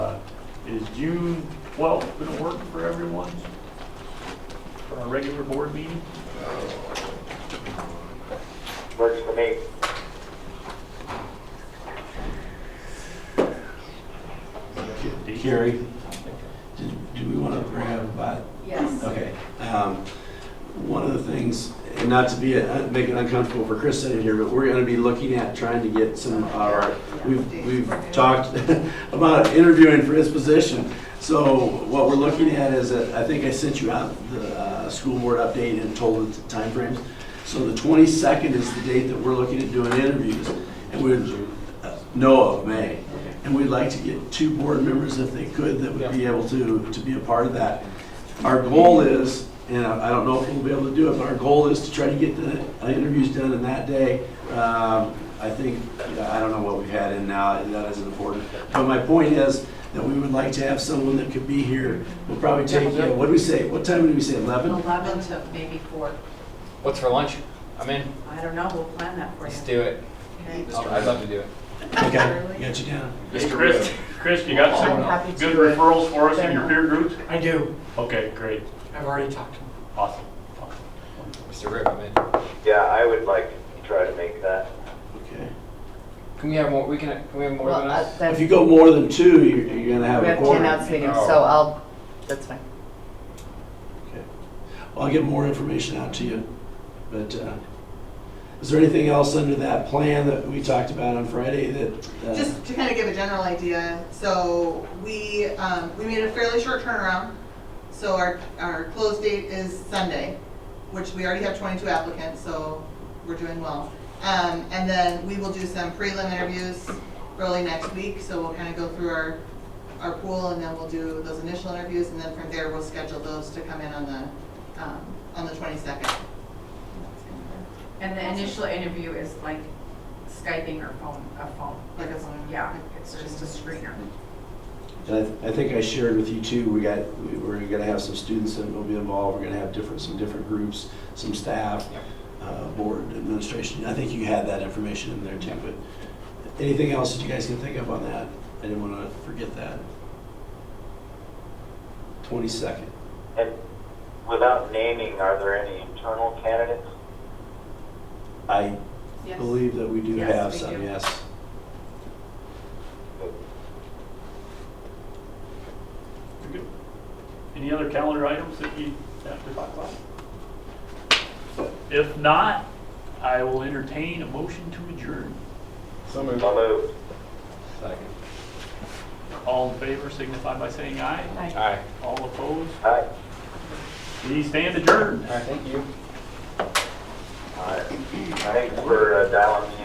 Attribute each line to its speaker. Speaker 1: Uh, Is June 12th going to work for everyone? For our regular board meeting?
Speaker 2: Works for me.
Speaker 3: Carrie, did- do we want to bring up about,
Speaker 4: Yes.
Speaker 3: okay. um, One of the things, and not to be, uh, make it uncomfortable for Chris sitting here, but we're going to be looking at trying to get some of our, we've, we've talked about interviewing for his position. So what we're looking at is, that- I think I sent you out the uh, school board update and told the timeframes. So the 22nd is the date that we're looking at doing interviews. And we're, uh, no, of May. And we'd like to get two board members, if they could, that would be able to, to be a part of that. Our goal is, and I I don't know if we'll be able to do it, but our goal is to try to get the uh, interviews done in that day. Um, I think, I don't know what we've had in now, that isn't important. But my point is that we would like to have someone that could be here. We'll probably take, uh, what do we say, what time did we say, 11?
Speaker 4: 11 to maybe 4.
Speaker 5: What's for lunch? I'm in.
Speaker 4: I don't know, we'll plan that for you.
Speaker 5: Let's do it.
Speaker 4: Okay.
Speaker 5: I'll- I'd love to do it.
Speaker 3: Okay, got you down.
Speaker 1: Hey, Chris, Chris, you got
Speaker 6: I'm
Speaker 1: some
Speaker 6: happy to
Speaker 1: good
Speaker 6: do it.
Speaker 1: referrals for us in your peer groups?
Speaker 6: I do.
Speaker 1: Okay, great,
Speaker 6: I've already talked to him.
Speaker 1: awesome.
Speaker 5: Mr. Rip, I'm in.
Speaker 2: Yeah, I would like to try to make that.
Speaker 3: Okay.
Speaker 5: Can we have more? We can. Can we have more
Speaker 7: Well,
Speaker 5: than
Speaker 7: uh,
Speaker 5: us?
Speaker 7: that-
Speaker 3: If you go more than two, you're you're gonna have
Speaker 7: We
Speaker 3: a
Speaker 7: have ten
Speaker 3: quorum.
Speaker 7: outstanding,
Speaker 5: Oh.
Speaker 7: so I'll, that's fine.
Speaker 3: Okay. Well, I'll get more information out to you, but uh, is there anything else under that plan that we talked about on Friday that? uh,
Speaker 8: Just to kind of give a general idea, so we, um, we made a fairly short turnaround. So our, our close date is Sunday, which we already have twenty-two applicants, so we're doing well. Um, and then we will do some prelim interviews early next week, so we'll kind of go through our, our pool and then we'll do those initial interviews and then from there we'll schedule those to come in on the, um, on the twenty-second.
Speaker 4: And the initial interview is like Skyping or phone, a phone.
Speaker 8: Like a phone.
Speaker 4: Yeah, it's just a screener.
Speaker 3: And I th- I think I shared with you too, we got, we- we're gonna have some students that will be involved, we're gonna have different, some different groups, some staff,
Speaker 5: Yep.
Speaker 3: uh, board administration. I think you had that information in there too, but anything else that you guys can think of on that? I didn't wanna forget that. Twenty-second.
Speaker 2: And without naming, are there any internal candidates?
Speaker 3: I
Speaker 4: Yes.
Speaker 3: believe that we do
Speaker 4: Yes,
Speaker 3: have
Speaker 4: we
Speaker 3: some,
Speaker 4: do.
Speaker 3: yes.
Speaker 1: Very good. Any other calendar items that you have to talk about? If not, I will entertain a motion to adjourn.
Speaker 5: So moved.
Speaker 2: So moved.
Speaker 5: Second.
Speaker 1: All in favor signify by saying aye.
Speaker 5: All right.
Speaker 1: All opposed,
Speaker 2: Aye.
Speaker 1: we stand adjourned.
Speaker 5: All right. Thank you.
Speaker 2: Aye. Thanks for uh, dialing me in.